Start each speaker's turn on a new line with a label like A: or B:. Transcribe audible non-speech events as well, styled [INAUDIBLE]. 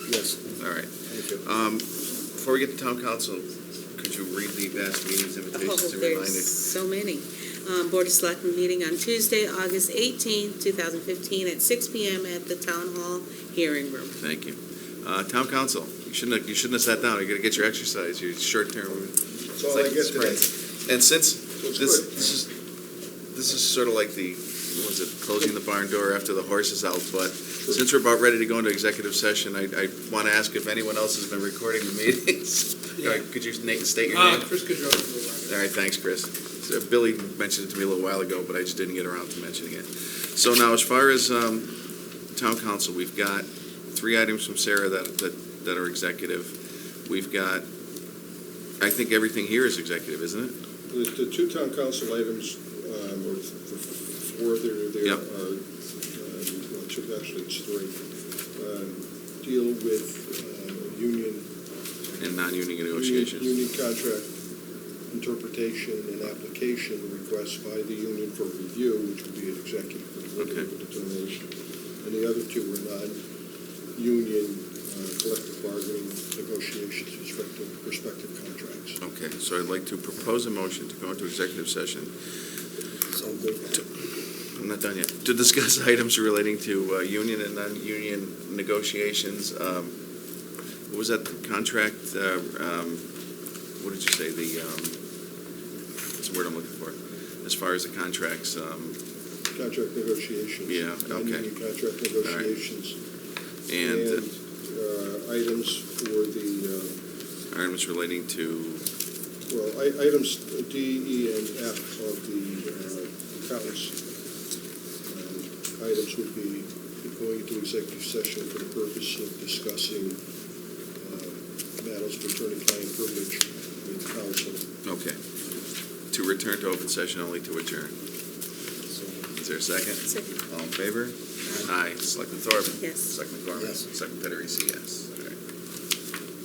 A: Yes.
B: All right.
A: Thank you.
B: Um, Before we get to town council, could you read the last meeting's invitations
C: Oh,
B: and remind us?
C: there's so many. Um, Board of Selectmen meeting on Tuesday, August eighteenth, two thousand fifteen, at six P M at the Town Hall Hearing Room.
B: Thank you. Uh, Town council, you shouldn't have, you shouldn't have sat down. You gotta get your exercise, your short-term.
A: That's all I get today.
B: And since
A: it's
B: this,
A: good.
B: this is, this is sort of like the, what was it, closing the barn door after the horse is out, but since we're about ready to go into executive session, I, I want to ask if anyone else has been recording the meetings. [LAUGHS] All right, Could you na- state your
D: Uh,
B: name?
D: Chris Gaudreau, Blue
B: All right, thanks, Chris. So Billy mentioned it to me a little while ago, but I just didn't get around to mentioning it. So now, as far as um, town council, we've got three items from Sarah that, that, that are executive. We've got, I think everything here is executive, isn't it?
A: The, the two town council items, um, or th- the four, there, there
B: Yep.
A: are, um, well, two, actually, it's three, um, deal with, um, union.
B: And non-union negotiations.
A: Union union contract interpretation and application requests by the union for review, which would be an executive
B: Okay.
A: determination. And the other two were non-union uh, collective bargaining negotiations, respective, respective contracts.
B: Okay, so I'd like to propose a motion to go into executive session.
A: So moved.
B: I'm not done yet. To discuss [LAUGHS] items relating to uh, union and non-union negotiations. um, What was that, the contract, uh, um, what did you say, the, um, what's the word I'm looking for? As far as the contracts, um,
A: Contract negotiations.
B: Yeah, okay.
A: Non-union contract negotiations.
B: and
A: uh, items for the, uh,
B: items relating to,
A: well, i- items D, E, and F of the uh, accounts. um, Items would be going into executive session for the purpose of discussing uh, matters of attorney-client privilege with counsel.
B: okay, to return to open session only to adjourn. Is there a second?
C: Second.
B: All in favor? Aye. Selectman Thorpe?
C: Yes.
B: Selectman Gorman?
A: Yes.
B: Selectman Federici, yes. All right.